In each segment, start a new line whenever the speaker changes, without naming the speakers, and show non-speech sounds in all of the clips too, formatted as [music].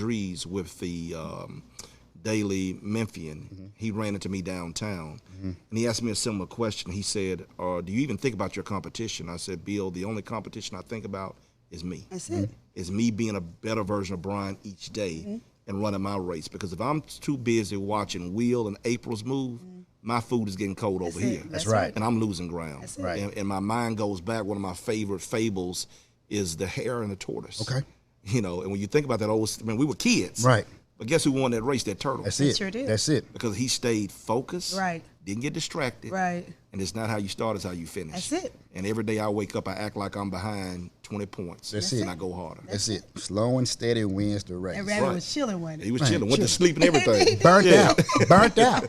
Drees with the um, Daily Memphian.
Mm-hmm.
He ran into me downtown, and he asked me a similar question. He said, uh, "Do you even think about your competition?" I said, "Bill, the only competition I think about is me."
That's it. Mm-hmm.
is me being a better version of Brian each day and running my race. Because if I'm too busy watching Will and April's move, my food is getting cold over
it.
here.
Mm-hmm. That's That's
right.
And I'm losing ground.
it.
Right.
And, and my mind goes back. One of my favorite fables is the hare and the tortoise.
Okay.
[laughs] You know, and when you think about that old, I mean, we were kids.
Right.
But guess who won that race? That turtle.
That's
It
it.
sure did.
That's it.
Because he stayed focused.
Right.
Didn't get distracted.
Right.
And it's not how you start, it's how you finish.
That's it.
And every day I wake up, I act like I'm behind 20 points.
That's
and
it.
I go harder.
That's it. Slow and steady wins the race.
And Rabbit was chilling one.
He was chilling, went to sleep and
[laughs]
everything.
Burnt
Yeah.
out. Burnt out.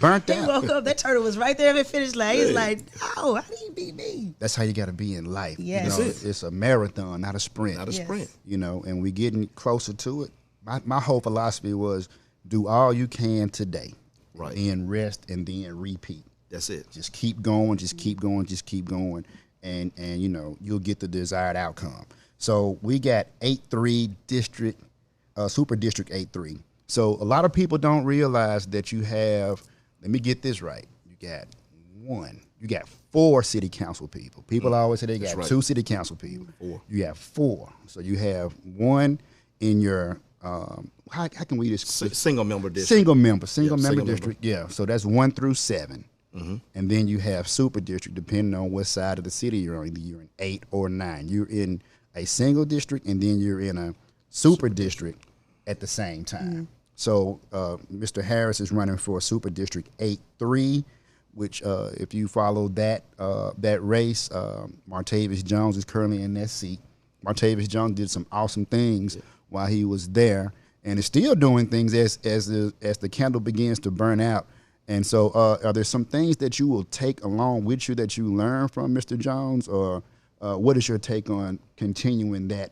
Burnt
He
out.
woke up. That turtle was right there at the finish line. He's like, "Oh, how do you beat me?"
That's how you got to be in life. You
Yes.
know,
That's it.
It's a marathon, not a sprint.
Not a
Yes.
sprint.
you know, and we getting closer to it. My, my whole philosophy was do all you can today,
Right.
Then rest and then repeat.
That's it.
Just keep going, just keep going, just keep going, and and you know you'll get the desired outcome. So we got eight three district, uh, super district eight three. So a lot of people don't realize that you have. Let me get this right. You got one. You got four city council people. People always say they got
right.
two city council people. You have four. So you have one in your. Um, how, how can we just
S- single member district.
Single member, single
Yeah,
member
single Mm-hmm.
district. Yeah, so that's one through 7 and then you have super district, depending on what side of the city you're on. Either you're in eight or nine. You're in a single district, and then you're in a super, district, at the same time. So uh, Mr. Harris is running for super district eight three, which uh, if you follow that uh, that race, um, Martavis Jones is currently in that seat. Martavis Jones did some awesome things while he was there, and is still doing things as as the as the candle begins to burn out. And so, uh, are there some things that you will take along with you that you learn from Mr. Jones, or uh, what is your take on continuing that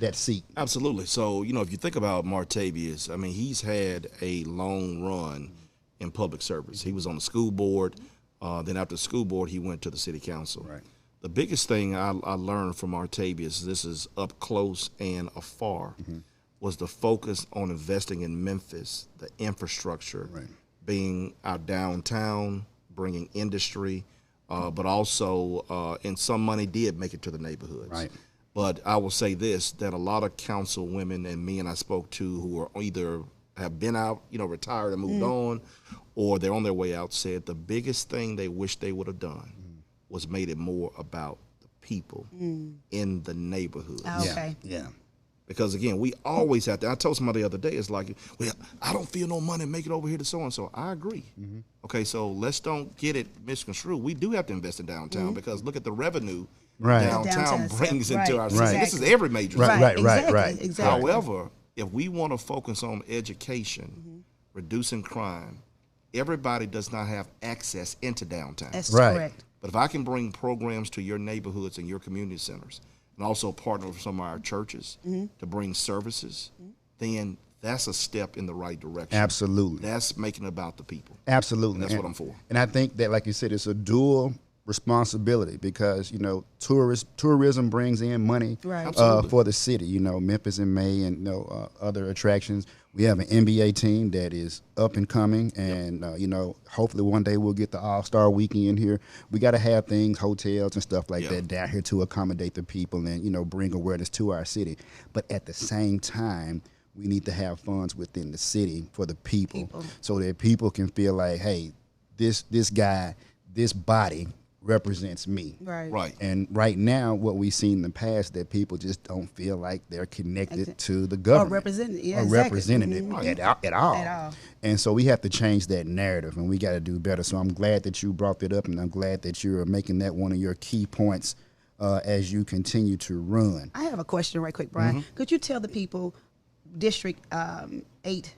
that seat?
Absolutely. So, you know, if you think about Martavius, I mean, he's had a long run in public service. He was on the school board. Uh, then after the school board, he went to the city council.
Right.
The biggest thing I, I learned from Martavius, this is up close and afar,
Mm-hmm.
was the focus on investing in Memphis, the infrastructure, being our downtown, bringing industry, uh, but also, uh, and some money did make it to the neighborhoods.
Right.
But I will say this: that a lot of council women and men I spoke to who are either have been out, you know, retired and moved on, or they're on their way out, said the biggest thing they wish they would have done was made it more about the people in the neighborhood.
Oh,
Okay.
Yeah.
Because again, we always have to. I told somebody the other day, it's like, well, I don't feel no money making it over here to so and so. I agree. Okay, so let's don't get it misconstrued. We do have to invest in downtown because look at the revenue
Right.
downtown,
Downtown,
brings
right,
into our city. This is
exactly.
every major
Right,
city.
right, right,
exactly,
right.
Exactly.
However, if we want to focus on education, reducing crime, everybody does not have access into downtown.
That's
Right.
correct.
But if I can bring programs to your neighborhoods and your community centers, and also partner with some of our churches to bring services, then that's a step in the right direction.
Absolutely.
That's making it about the people.
Absolutely.
That's
And-
what I'm for.
And I think that, like you said, it's a dual responsibility because you know tourist tourism brings in money
Right.
uh,
Absolutely.
for the city. You know, Memphis in May and you know, uh, other attractions. We have an NBA team that is up and coming, and uh, you know, hopefully one day we'll get the All Star Weekend here. We got to have things, hotels and stuff like
Yeah.
that down here to accommodate the people and you know bring awareness to our city. But at the same time. We need to have funds within the city for the people. so that people can feel like, hey, this this guy, this body represents me.
Right.
Right.
And right now, what we've seen in the past that people just don't feel like they're connected to the
Or
government
represented. Yeah.
or
exactly.
representative
Mhm.
at, all- at all.
At all.
And so we have to change that narrative and we got to do better. So I'm glad that you brought that up and I'm glad that you're making that one of your key points uh, as you continue to run.
I have a question right quick, Brian. Could you tell the people, District um, Eight,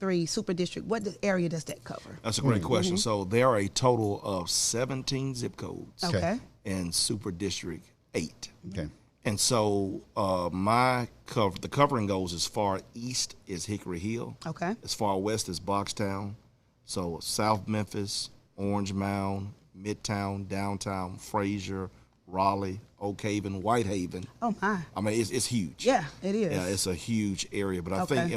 Three Super District, what the area does that cover?
That's a great question. So there are a total of 17 zip codes
Okay.
in Super District 8.
Okay.
And so uh, my cover, the covering goes as far east as Hickory Hill.
Okay.
As far west as Boxtown. So South Memphis, Orange Mound, Midtown, Downtown, Frazier, Raleigh, Oak Haven, White Haven.
Oh my.
I mean, it's, it's huge.
Yeah, it is.
Yeah, it's a huge area. But I
Okay.
think